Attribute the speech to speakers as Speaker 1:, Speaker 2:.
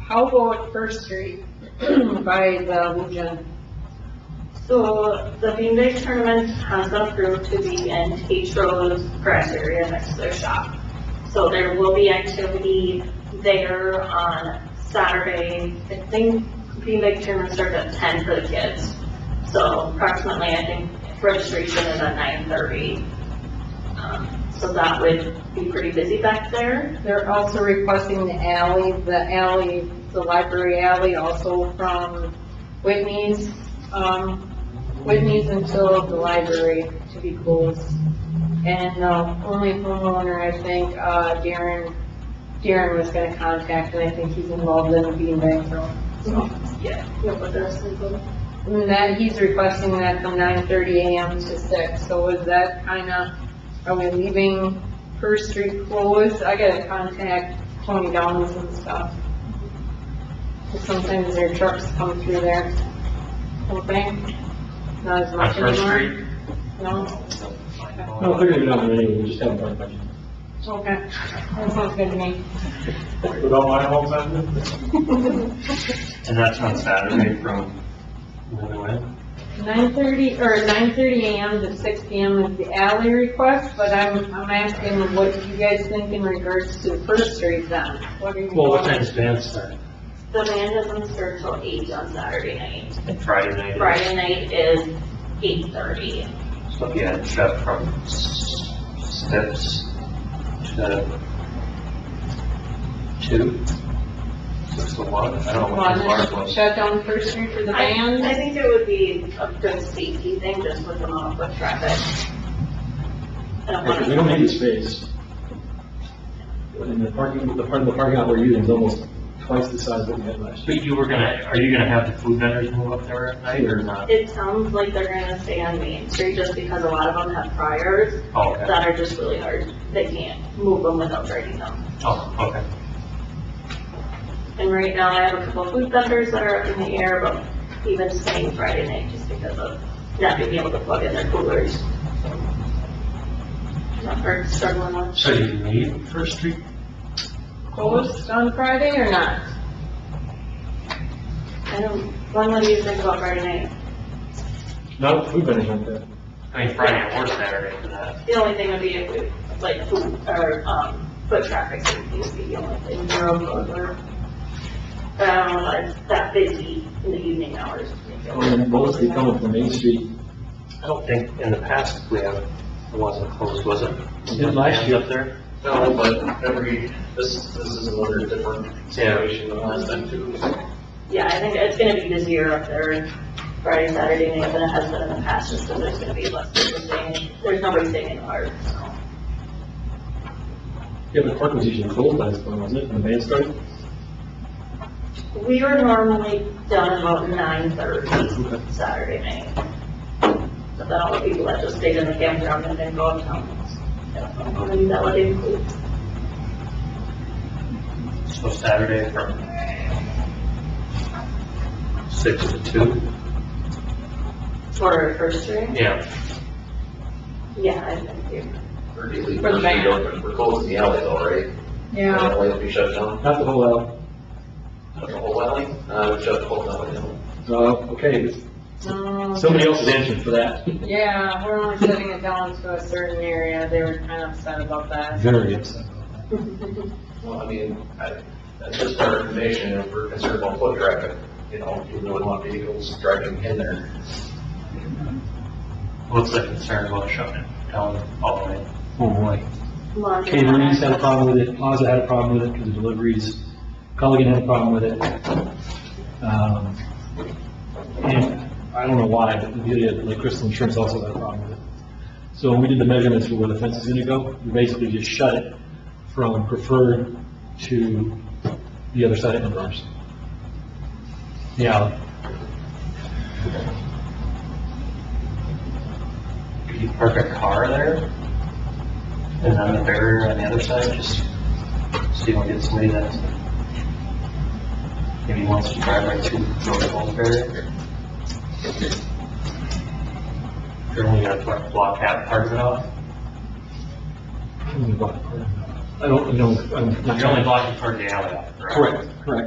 Speaker 1: How about First Street by the Legion?
Speaker 2: So the Bean Bag tournament has been approved to be in H Rose grass area next to their shop. So there will be activity there on Saturday. I think Bean Bag tournament starts at ten for the kids. So approximately, I think registration is at nine thirty. Um, So that would be pretty busy back there.
Speaker 1: They're also requesting the alley, the alley, the library alley also from Whitney's, um, Whitney's until the library to be closed. And the only homeowner, I think, uh, Darren, Darren was gonna contact, and I think he's involved in the beanbag throw.
Speaker 2: Yeah. but there's people.
Speaker 1: And that, he's requesting that from nine thirty AM to six, so is that kinda, are we leaving First Street closed? I gotta contact Tony Downs and stuff. 'Cause Sometimes their trucks come through there, don't they? Not as
Speaker 3: On
Speaker 1: much
Speaker 3: First
Speaker 1: anymore,
Speaker 3: Street?
Speaker 1: no?
Speaker 4: No, they're gonna be down there anyway, we just haven't done much.
Speaker 1: Okay, that sounds good to me.
Speaker 4: Without my home on it?
Speaker 3: And that's on Saturday from when to when?
Speaker 1: Nine thirty, or nine thirty AM to six PM is the alley request, but I'm, I'm asking what you guys think in regards to First Street then? What are you?
Speaker 4: Well, what time's dance start?
Speaker 2: The man doesn't start till eight on Saturday night.
Speaker 3: Friday night?
Speaker 2: Friday night is eight thirty.
Speaker 3: So yeah, it's up from s- steps to two? Six to one? I don't know what the water
Speaker 1: Want to
Speaker 3: was.
Speaker 1: shut down First Street for the
Speaker 2: I- I
Speaker 1: band?
Speaker 2: think it would be a good safety thing, just with the amount of foot traffic. I don't
Speaker 4: Because we
Speaker 2: wanna-
Speaker 4: don't need the space. And the parking, the part of the parking lot we're using is almost twice the size that we had last year.
Speaker 3: But you were gonna, are you gonna have the food vendors move up there at night or not?
Speaker 2: It sounds like they're gonna stay on Main Street just because a lot of them have priors
Speaker 3: Oh, okay.
Speaker 2: that are just really hard. They can't move them without breaking them.
Speaker 3: Oh, okay.
Speaker 2: And right now, I have a couple food vendors that are up in the air, but even staying Friday night just because of not being able to plug in their coolers. Not for struggling on.
Speaker 3: So you leave First Street?
Speaker 1: Closed on Friday or not?
Speaker 2: I don't, one of you think about Friday night.
Speaker 4: Not food vendors like that.
Speaker 3: I mean, Friday or Saturday for that.
Speaker 2: The only thing would be if we, like, food, or, um, foot traffic safety would be the only thing, we're all over. But I don't know, if it's that busy in the evening hours.
Speaker 4: And mostly coming from Main Street.
Speaker 3: I don't think in the past we have, it wasn't closed, was it?
Speaker 4: Did last year.
Speaker 3: Up there?
Speaker 5: No, but every, this, this is another different situation than last time too.
Speaker 2: Yeah, I think it's gonna be busier up there Friday, Saturday night than it has been in the past, just because there's gonna be less people staying, there's nobody staying in the park, so.
Speaker 4: Yeah, the park was usually closed last time, wasn't it, when the band started?
Speaker 2: We are normally done about nine thirty Saturday night. But then all the people that just stayed in the campground and then go uptown. Maybe that would include.
Speaker 3: So Saturday from six to two?
Speaker 2: For first string?
Speaker 3: Yeah.
Speaker 2: Yeah, I think you.
Speaker 5: Or do you leave
Speaker 1: For the
Speaker 5: First Street
Speaker 1: band.
Speaker 5: open? We're closing the alley though, right? The alley will be shut down,
Speaker 4: Not the whole alley.
Speaker 5: Not the whole alley, uh, we shut the whole alley down.
Speaker 4: Uh, okay,
Speaker 1: No.
Speaker 4: somebody else is answering for that.
Speaker 1: Um, Yeah, we're only shutting it down to a certain area, they were kind of upset about that.
Speaker 4: Very upset.
Speaker 5: Well, I mean, I, that's just our information, if we're concerned about foot traffic, you know, people would want vehicles driving in there.
Speaker 3: What's the concern about shutting it down all the way?
Speaker 4: Oh, boy.
Speaker 2: Laundry.
Speaker 4: Caterings had a problem with it, Plaza had a problem with it because of deliveries, Culligan had a problem with it. Um, And I don't know why, but Amelia, like Crystal Insurance also had a problem with it. So when we did the measurements for where the fence is gonna go, we basically just shut it from preferred to the other side of Amber's. Yeah,
Speaker 3: Could you park a car there? And then the barrier on the other side, just so you don't get somebody that maybe wants to drive right through the whole barrier? You're only gonna put a block out, park it off?
Speaker 4: I don't, you know, I'm not.
Speaker 3: You're only blocking part of the alley off, correct?
Speaker 4: Correct, correct.